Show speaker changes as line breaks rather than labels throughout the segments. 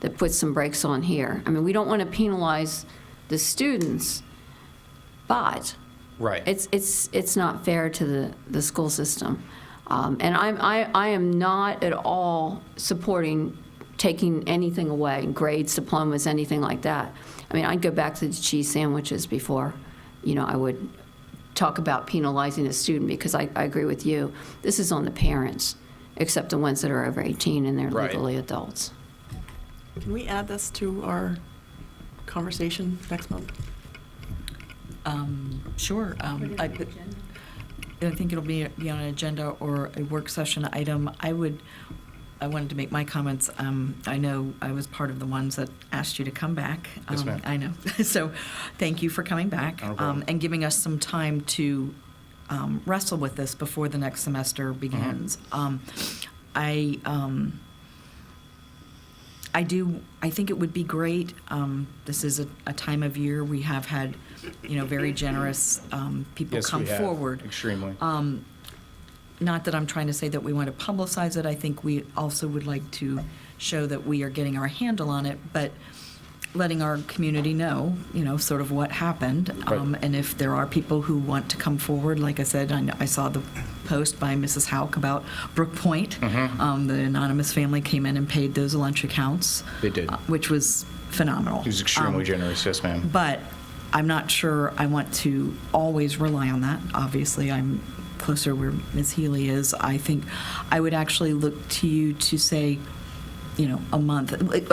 that puts some brakes on here. I mean, we don't want to penalize the students, but
Right.
it's, it's, it's not fair to the, the school system. Um, And I'm, I, I am not at all supporting taking anything away, grades, diplomas, anything like that. I mean, I'd go back to the cheese sandwiches before, you know, I would talk about penalizing a student, because I, I agree with you. This is on the parents, except the ones that are over 18 and they're
Right.
legally adults.
Can we add this to our conversation next month?
Um, Sure. um, I put- I think it'll be be on an agenda or a work session item. I would, I wanted to make my comments. Um, I know I was part of the ones that asked you to come back.
Yes,
Um,
ma'am.
I know. So, thank you for coming back.
Not a
um,
problem.
And giving us some time to um, wrestle with this before the next semester begins.
Mm-hmm.
Um, I, um, I do, I think it would be great. Um, this is a, a time of year we have had, you know, very generous um, people
Yes,
come
we have.
forward.
Extremely.
Um, not that I'm trying to say that we want to publicize it. I think we also would like to show that we are getting our handle on it, but letting our community know, you know, sort of what happened.
Right.
Um, and if there are people who want to come forward, like I said, I, know, I saw the post by Mrs. Hauk about Brook Point.
Mm-hmm.
Um, the anonymous family came in and paid those lunch accounts.
They did.
uh, which was phenomenal.
He was extremely
Um,
generous. Yes, ma'am.
but I'm not sure I want to always rely on that. Obviously, I'm closer where Ms. Healy is. I think I would actually look to you to say, you know, a month.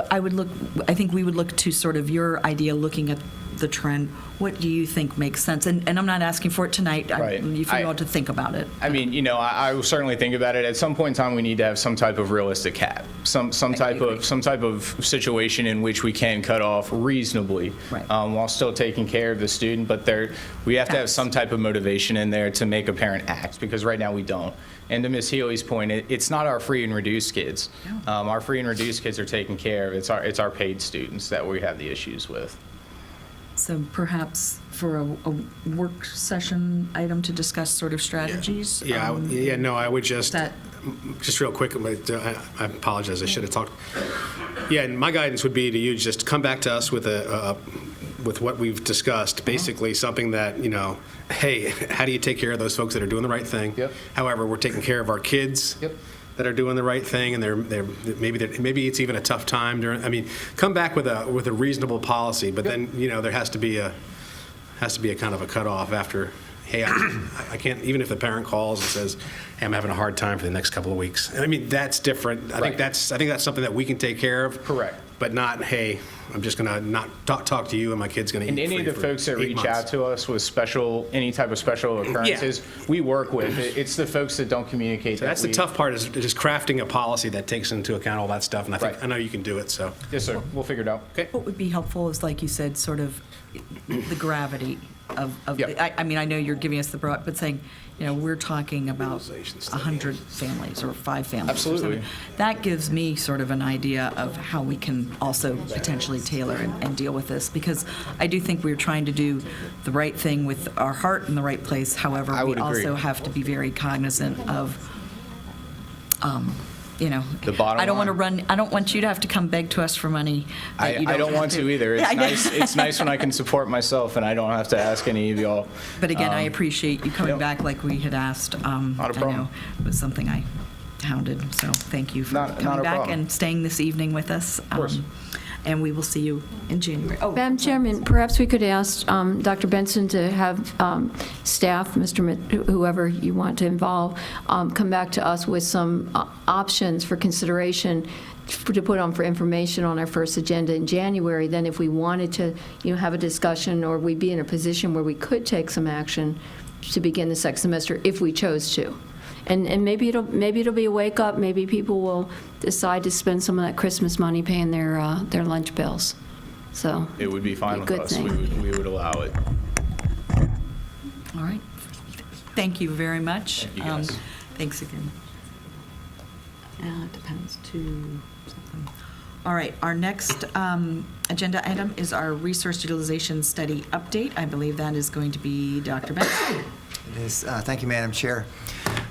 I would look, I think we would look to sort of your idea, looking at the trend. What do you think makes sense? And, and I'm not asking for it tonight. I-
Right.
You feel
I-
all to think about it.
I mean, you know, I, I will certainly think about it. At some point in time, we need to have some type of realistic cap, some some type
agree.
of some type of situation in which we can cut off reasonably,
Right.
um, while still taking care of the student. But there, we have to have
Facts.
some type of motivation in there to make a parent act because right now we don't. And to Ms. Healy's point, it, it's not our free and reduced kids.
No.
Um, our free and reduced kids are taken care of. It's our it's our paid students that we have the issues with.
So perhaps for a, a work session item to discuss sort of strategies.
Yeah, I would-
um,
yeah, no, I would just,
that-
just real quick, but, uh, I I apologize, I should have talked. Yeah, and my guidance would be to you, just come back to us with a, uh, with what we've discussed, basically something that, you know, hey, how do you take care of those folks that are doing the right thing?
Yep.
However, we're taking care of our kids.
Yep.
That are doing the right thing, and they're, they're, maybe, they're- maybe it's even a tough time during, I mean, come back with a, with a reasonable policy, but then, you know, there has to be a, has to be a kind of a cutoff after, hey, I I can't, even if the parent calls and says, hey, I'm having a hard time for the next couple of weeks. And I mean, that's different. I
Right.
think that's, I think that's something that we can take care of.
Correct.
But not, hey, I'm just going to not talk, talk to you and my kid's going to eat
And any of
free
the
for
folks that
eight
reach
months."
out to us with special, any type of special occurrences, we work with. It- It's the folks that don't communicate.
So That's
that
the
we-
tough part is just crafting a policy that takes into account all that stuff. And I think,
Right.
I know you can do it, so.
Yes, sir. We'll figure it out. Okay.
What would be helpful is, like you said, sort of the gravity of, of,
Yep.
I, I mean, I know you're giving us the broad, but saying, you know, we're talking about
Utilization
a
study.
hundred families or five families. or
Absolutely.
something. That gives me sort of an idea of how we can also potentially tailor and, and deal with this, because I do think we're trying to do the right thing with our heart in the right place. However,
I
we
would agree.
also have to be very cognizant of, um, you know.
The bottom
I don't want to
line.
run, I don't want you to have to come beg to us for money
I,
that you
I don't
have
want to either.
Yeah,
It's
I know.
nice, it's nice when I can support myself and I don't have to ask any of y'all.
But again, I
Um,
appreciate you coming
yep.
back like we had asked. Um,
Not a
I
problem.
know It was something I hounded, so thank you for
Not-
coming
not a
back
problem.
and staying this evening with us. Of
course.
and we will see you in January. Oh,
Madam Chairman, perhaps we could ask um, Dr. Benson to have um, staff, Mr. Mit- whoever you want to involve, um, come back to us with some uh, options for consideration f- to put on for information on our first agenda in January. Then if we wanted to, you know, have a discussion, or we'd be in a position where we could take some action to begin the second semester if we chose to. And, and maybe it'll, maybe it'll be a wake-up, maybe people will decide to spend some of that Christmas money paying their, uh, their lunch bills. So.
It would be fine with
Good
us. We
thing.
would, we would allow it.
All right. Thank you very much.
Thank you,
Um,
guys.
Thanks again. Uh, it Depends to something. All right, our next um, agenda item is our resource utilization study update. I believe that is going to be Dr. Benson.
It is, uh, thank you, Madam Chair.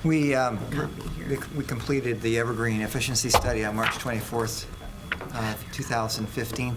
We, um, we- we completed the Evergreen Efficiency Study on March 24th, uh, 2015